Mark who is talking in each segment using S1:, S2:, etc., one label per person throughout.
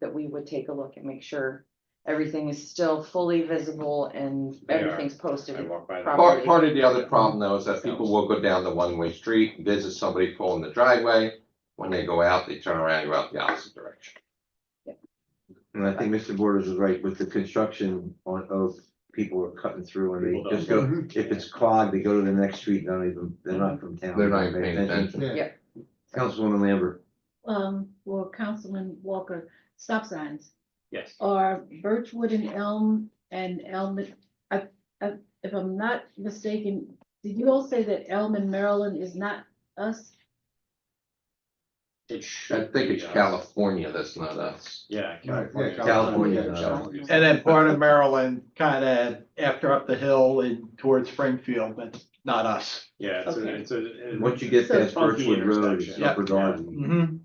S1: that we would take a look and make sure everything is still fully visible and
S2: They are.
S1: everything's posted.
S2: I walk by.
S1: Probably.
S3: Part, part of the other problem though is that people will go down the one-way street, visit somebody pulling the driveway. When they go out, they turn around and go out the opposite direction.
S4: And I think Mr. Borders was right with the construction on Oak, people are cutting through and
S2: People
S4: they just
S2: don't.
S4: go, if it's clogged, they go to the next street, not even, they're not from town.
S3: They're not even paying attention.
S4: Councilwoman Lambert,
S5: um, well, Councilman Walker, stop signs
S2: Yes.
S5: are Birchwood and Elm and Elm. I, I, if I'm not mistaken, did you all say that Elm and Maryland is not us?
S2: It
S3: I
S2: should.
S3: think
S2: be
S3: it's
S2: us.
S3: California that's not us.
S2: Yeah.
S6: California.
S4: California.
S2: California.
S7: And then part of Maryland, kind of after up the hill and towards Springfield, but not us.
S2: Yeah, it's a,
S5: Okay.
S2: it's a. it-
S4: once you get
S5: So
S4: past
S2: funky
S4: Birchwood Road, it's
S2: intersection.
S4: Upper Garden.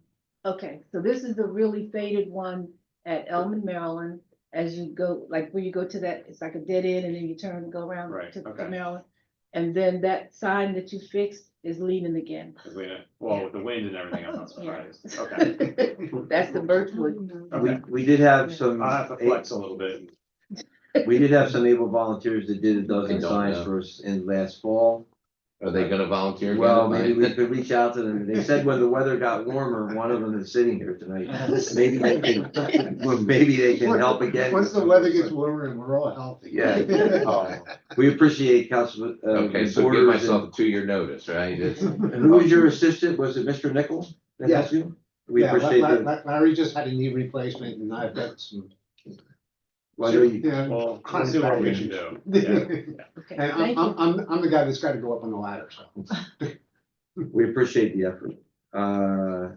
S7: Mhm.
S5: Okay, so this is the really faded one at Elm and Maryland. As you go, like where you go to that, it's like a dead end and then you turn and go around
S2: Right,
S5: to to
S2: okay.
S5: Maryland. And then that sign that you fixed is leaving again.
S2: 'Cause we know- Well, with the wind and everything, I'm not
S5: Yeah.
S2: surprised. Okay.
S5: That's the Birchwood.
S4: We,
S2: Mm-hmm. Okay.
S4: we did have some,
S2: I'll have to flex a little bit.
S4: we did have some able volunteers that did a
S3: They
S4: dozen
S3: don't
S4: signs
S3: know.
S4: for us in last fall.
S3: Are they gonna volunteer? again
S4: Well,
S3: tonight?
S4: maybe we could reach out to them. They said when the weather got warmer, one of them is sitting here tonight. Maybe they can, well, maybe they can help again.
S6: Once the weather gets warmer and we're all healthy.
S4: Yeah.
S3: Oh,
S4: We appreciate Councilman, uh,
S3: Okay, so give
S4: Borders
S3: myself
S4: and,
S3: a two-year notice, right? It's-
S4: and who was your assistant? Was it Mr. Nichols? that
S6: Yeah.
S4: helped you? We
S6: Yeah, La-
S4: appreciate
S6: La-
S4: that.
S6: La- Larry just had a knee replacement and I've got some.
S4: Why don't you-
S6: Yeah.
S2: Oh, Well, let's see what we can do. Yeah.
S6: And
S5: Okay, thank
S6: I'm,
S5: you.
S6: I'm, I'm, I'm the guy that's gotta go up on the ladder, so.
S4: We appreciate the effort. Uh,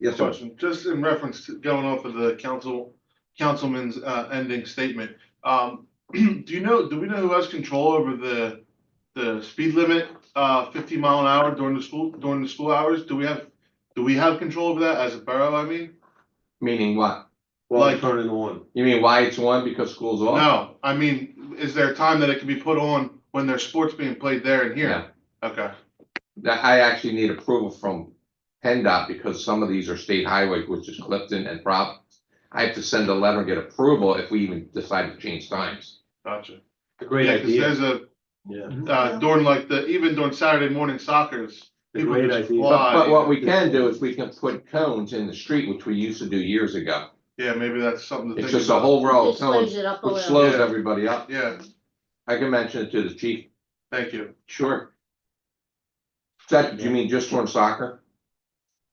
S4: yes, sir.
S8: Question, just in reference to going off of the council, councilman's uh ending statement. Um, do you know, do we know who has control over the, the speed limit, uh, fifty mile an hour during the school, during the school hours? Do we have, do we have control over that as a borough, I mean?
S3: Meaning what?
S4: Well,
S8: Like-
S4: turn it on.
S3: You mean why it's one? Because school's off?
S8: No, I mean, is there a time that it can be put on when there's sports being played there and here? Okay,
S3: That I actually need approval from PennDOT because some of these are state highways, which is Clifton and Prop. I have to send a letter and get approval if we even decide to change times.
S8: gotcha.
S4: Great
S8: Yeah, 'cause there's a,
S4: Yeah.
S8: uh, during like the, even during Saturday morning soccer's. people
S4: Great
S8: just
S4: idea.
S8: fly.
S3: But, but what we can do is we can put cones in the street, which we used to do years ago.
S8: Yeah, maybe that's something to think
S3: It's
S8: about.
S3: just a whole row of
S5: Just slows
S3: cones,
S5: it up a
S3: which
S5: little.
S3: slows
S8: Yeah.
S3: everybody up.
S8: Yeah,
S3: I can mention it to the chief.
S8: thank you.
S3: Sure. That, you mean just on soccer?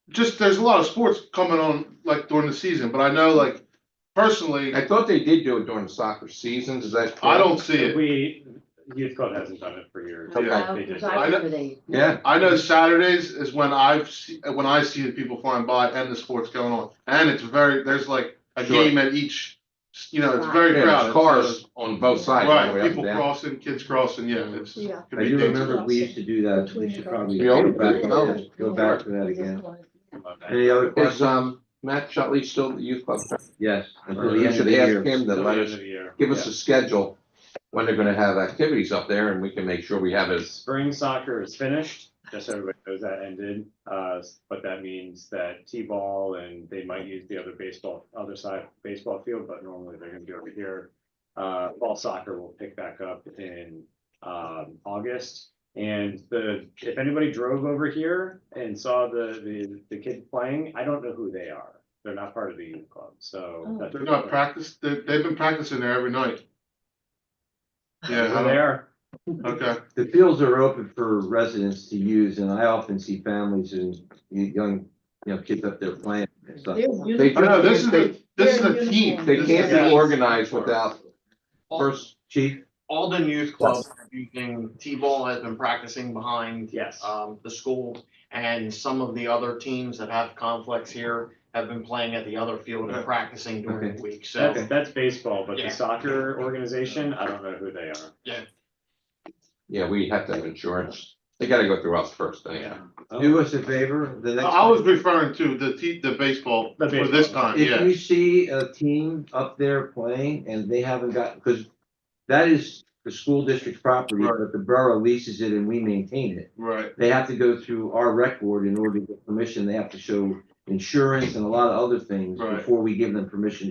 S8: Just, there's a lot of sports coming on like during the season, but I know like personally,
S3: I thought they did do it during the soccer seasons. Is that?
S8: I don't
S3: correct?
S8: see it.
S2: We, youth club hasn't done it for years.
S3: Okay.
S5: Wow,
S2: They did.
S5: I
S8: I know-
S5: remember they-
S3: Yeah,
S8: I know Saturdays is when I've, se- when I see the people flying by and the sports going on. And it's very, there's like a
S3: Sure.
S8: game at each, you know, it's
S3: Yeah,
S8: very
S3: there's
S8: crowded.
S3: cars on both sides. all the way
S8: Right,
S3: up
S8: people
S3: and down.
S8: crossing, kids crossing, yeah, it's.
S5: Yeah.
S8: could
S4: I
S8: be
S4: do
S8: dangerous.
S4: remember we used to do that. We should probably
S3: We all
S4: go back,
S3: did.
S4: to- go back to that again.
S2: Love that.
S4: Any other
S3: Is
S4: questions?
S3: um Matt Shotley still the youth club? president?
S4: Yes. until the
S3: You
S4: end of
S3: should
S4: the
S3: ask
S4: year.
S3: him to
S2: Till the
S3: let
S2: end
S3: us,
S2: of the year.
S3: give us a schedule when they're gonna have activities up there and we can make sure we have as
S2: Spring soccer is finished, just so everybody knows that ended, uh, but that means that T-ball and they might use the other baseball, other side baseball field, but normally they're gonna be over here. Uh, ball soccer will pick back up in, um, August. And the, if anybody drove over here and saw the, the, the kid playing, I don't know who they are. They're not part of the youth club, so.
S5: Oh.
S2: that's-
S8: They're not practiced, they, they've been practicing there every night. Yeah, I
S2: They're
S8: don't-
S2: there.
S8: okay.
S4: The fields are open for residents to use and I often see families and young, you know, kids up there playing and stuff.
S5: They're
S3: They
S8: Oh,
S5: beautiful.
S8: no, this is a, this is
S5: They're
S8: a team.
S5: uniform.
S3: They
S8: This is
S3: can't
S8: a
S3: be
S8: team.
S3: organized without first,
S4: Chief,
S9: Alden Youth Club using T-ball has been practicing behind
S2: Yes.
S9: um the school. And some of the other teams that have conflicts here have been playing at the other field and practicing during the week, so.
S2: That's, that's baseball, but
S9: Yeah.
S2: the soccer organization, I don't know who they are.
S3: yeah, we have to have insurance. They gotta go through us first, anyhow.
S2: Oh.
S4: do us a favor, the next.
S8: I was referring to the te- the baseball
S2: The
S8: for this
S2: baseball.
S8: time,
S4: If
S8: yeah.
S4: you see a team up there playing and they haven't got, because that is the school district's property,
S8: Right.
S4: but the borough leases it and we maintain it.
S8: Right,
S4: They have to go through our rec board in order to get permission. They have to show insurance and a lot of other things
S8: Right.
S4: before we give them permission to